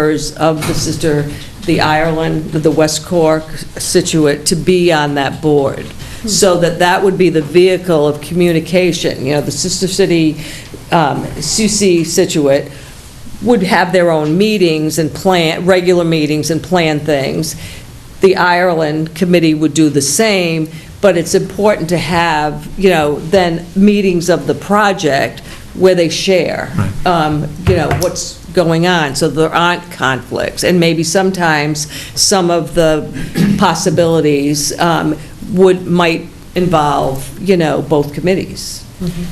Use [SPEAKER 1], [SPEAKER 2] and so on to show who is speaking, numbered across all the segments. [SPEAKER 1] members of the sister, the Ireland, the West Cork, Situate, to be on that board, so that that would be the vehicle of communication. You know, the sister city, um, Susi Situate, would have their own meetings and plan, regular meetings and plan things. The Ireland committee would do the same, but it's important to have, you know, then meetings of the project where they share, um, you know, what's going on, so there aren't conflicts. And maybe sometimes, some of the possibilities um, would, might involve, you know, both committees.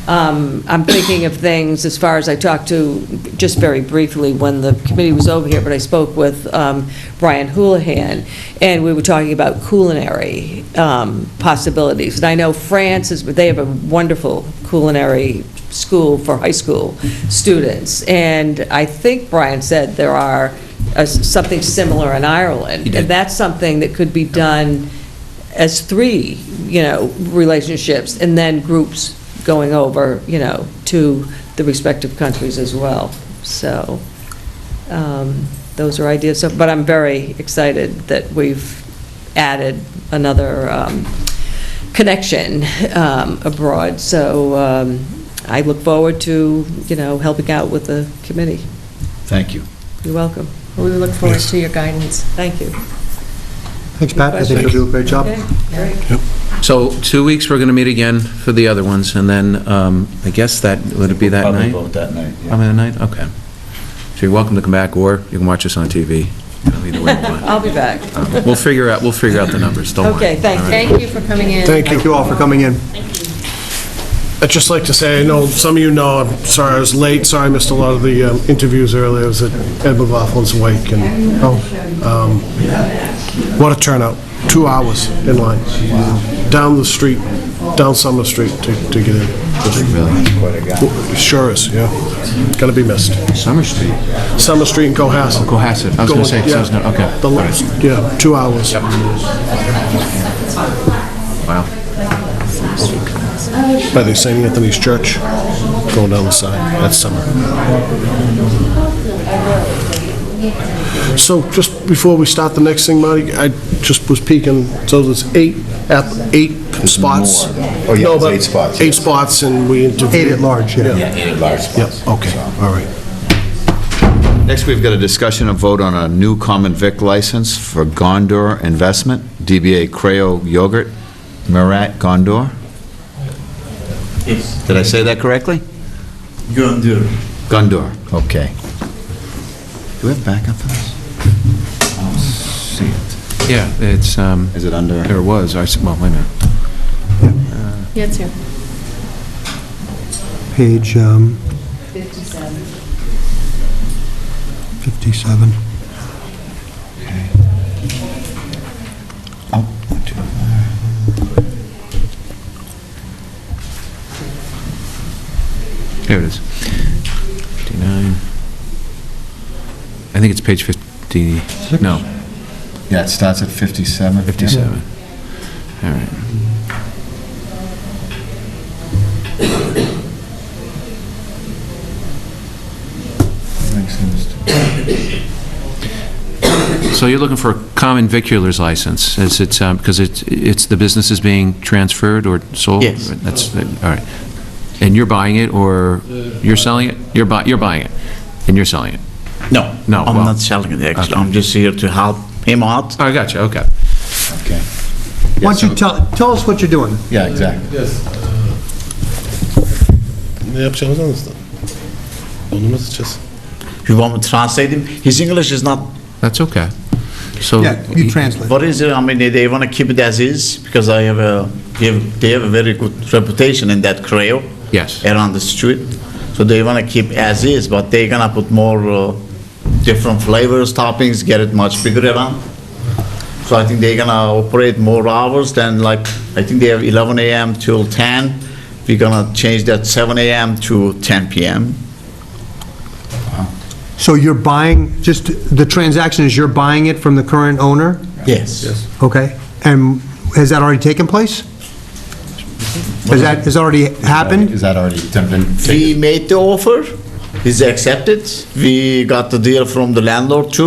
[SPEAKER 1] Um, I'm thinking of things, as far as I talked to, just very briefly, when the committee was over here, but I spoke with um, Brian Houlihan, and we were talking about culinary um, possibilities. And I know France is, they have a wonderful culinary school for high school students, and I think Brian said there are uh, something similar in Ireland.
[SPEAKER 2] He did.
[SPEAKER 1] And that's something that could be done as three, you know, relationships, and then groups going over, you know, to the respective countries as well. So, um, those are ideas, So, but I'm very excited that we've added another um, connection um, abroad, so um, I look forward to, you know, helping out with the committee.
[SPEAKER 2] Thank you.
[SPEAKER 1] You're welcome.
[SPEAKER 3] We look forward to your guidance.
[SPEAKER 1] Thank you.
[SPEAKER 4] Thanks, Pat. I think you'll do a great job.
[SPEAKER 1] Okay, great.
[SPEAKER 2] So two weeks, we're going to meet again for the other ones, and then um, I guess that, would it be that
[SPEAKER 5] Probably
[SPEAKER 2] night?
[SPEAKER 5] vote that night, yeah.
[SPEAKER 2] Probably that night, okay. So you're welcome to come back, or you can watch us on TV. Either way you want.
[SPEAKER 1] I'll be back.
[SPEAKER 2] Um, We'll figure out, we'll figure out the numbers, don't worry.
[SPEAKER 1] Okay, thank
[SPEAKER 2] All right.
[SPEAKER 3] Thank you for coming in.
[SPEAKER 4] Thank you all for coming in.
[SPEAKER 6] I'd just like to say, I know some of you know, I'm sorry I was late, sorry I missed a lot of the um, interviews earlier, I was at Ed McLaughlin's wake, and, um, what a turnout, two hours in line, down the street, down Summer Street to to get in. Sure is, yeah, gonna be missed.
[SPEAKER 2] Summer Street, Oh,
[SPEAKER 6] Summer Street and Cohasset.
[SPEAKER 2] Cohasset, I was going to say,
[SPEAKER 6] Going- yeah.
[SPEAKER 2] so it's not- okay.
[SPEAKER 6] The
[SPEAKER 2] all
[SPEAKER 6] last-
[SPEAKER 2] right.
[SPEAKER 6] Yeah, two hours.
[SPEAKER 2] Wow,
[SPEAKER 6] By the St. Anthony's Church, going down the side, that's summer. So just before we start the next thing, Marty, I just was peeking, so there's eight, app- eight spots?
[SPEAKER 5] Oh, yeah,
[SPEAKER 6] No,
[SPEAKER 5] it's
[SPEAKER 6] but
[SPEAKER 5] eight spots,
[SPEAKER 6] Eight
[SPEAKER 5] yes.
[SPEAKER 6] spots, and we interviewed.
[SPEAKER 4] Eight at large, yeah.
[SPEAKER 5] Large
[SPEAKER 6] Yep,
[SPEAKER 5] spots.
[SPEAKER 6] okay, all right.
[SPEAKER 5] Next, we've got a discussion of vote on a new common vic license for Gondor Investment, DBA Creo Yogurt, Murat Gondor.
[SPEAKER 7] Yes,
[SPEAKER 5] Did I say that correctly?
[SPEAKER 7] Gondor.
[SPEAKER 5] Gondor, okay. Do we have backup for this? I don't see it.
[SPEAKER 2] yeah, it's, um,
[SPEAKER 5] Is it under?
[SPEAKER 2] there was, I, s- well, wait a minute.
[SPEAKER 3] Yeah, it's here.
[SPEAKER 4] Page um, 57.
[SPEAKER 5] Oh, one, two, all right.
[SPEAKER 2] Here it is. 59. I think it's page 50, no,
[SPEAKER 5] Yeah, it starts at 57.
[SPEAKER 2] 57. All right.
[SPEAKER 5] Everything seems to-
[SPEAKER 2] So you're looking for a common vicular's license, is it, because it's, it's, the business is being transferred or sold?
[SPEAKER 7] Yes.
[SPEAKER 2] That's, that- all right. And you're buying it, or you're selling it? You're buy, you're buying it, and you're selling it?
[SPEAKER 7] No,
[SPEAKER 2] No,
[SPEAKER 7] I'm
[SPEAKER 2] well-
[SPEAKER 7] not selling it actually.
[SPEAKER 2] Okay.
[SPEAKER 7] I'm just here to help him out.
[SPEAKER 2] Oh, I got you, okay.
[SPEAKER 5] Okay. Yeah,
[SPEAKER 4] Why don't
[SPEAKER 5] so-
[SPEAKER 4] you tell, tell us what you're doing?
[SPEAKER 5] Yeah, exactly.
[SPEAKER 6] Ne yapacağımızı anlatın. Onu mu seçeceğiz?
[SPEAKER 7] You want me to translate him? His English is not.
[SPEAKER 2] That's okay. So.
[SPEAKER 4] Yeah, you translate.
[SPEAKER 7] What is it? I mean, they, they want to keep it as is because I have a they have, they have a very good reputation in that Creo.
[SPEAKER 2] Yes.
[SPEAKER 7] Around the street, so they want to keep as is, but they're gonna put more uh, different flavors, toppings, get it much bigger around. So I think they're gonna operate more hours than like, I think they have 11 AM till 10. We're gonna change that 7 AM to 10 PM.
[SPEAKER 4] So you're buying, just, the transaction is you're buying it from the current owner?
[SPEAKER 7] Yes.
[SPEAKER 4] Okay. And has that already taken place? Has that, has already happened?
[SPEAKER 5] Is that already been?
[SPEAKER 7] We made the offer, is accepted. We got the deal from the landlord too.